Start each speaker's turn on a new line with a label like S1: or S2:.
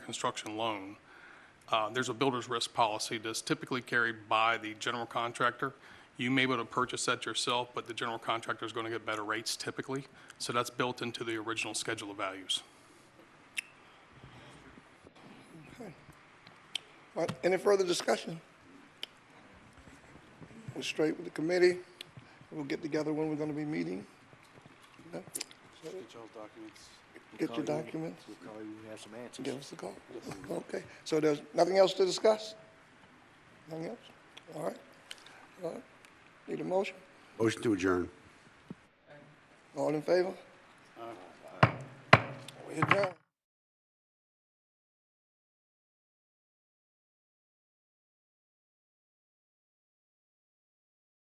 S1: construction loan, uh, there's a builder's risk policy that's typically carried by the general contractor. You may be able to purchase that yourself, but the general contractor is going to get better rates typically. So that's built into the original schedule of values.
S2: All right, Any further discussion? We're straight with the committee. We'll get together when we're going to be meeting. No?
S3: Get y'all's documents.
S2: Get your documents.
S3: We'll call you, when we have some answers.
S2: Give us a call. Okay, so there's nothing else to discuss? Nothing else? All right. All right. Need a motion?
S4: Motion to adjourn.
S3: Uh,
S2: All in favor? We adjourn.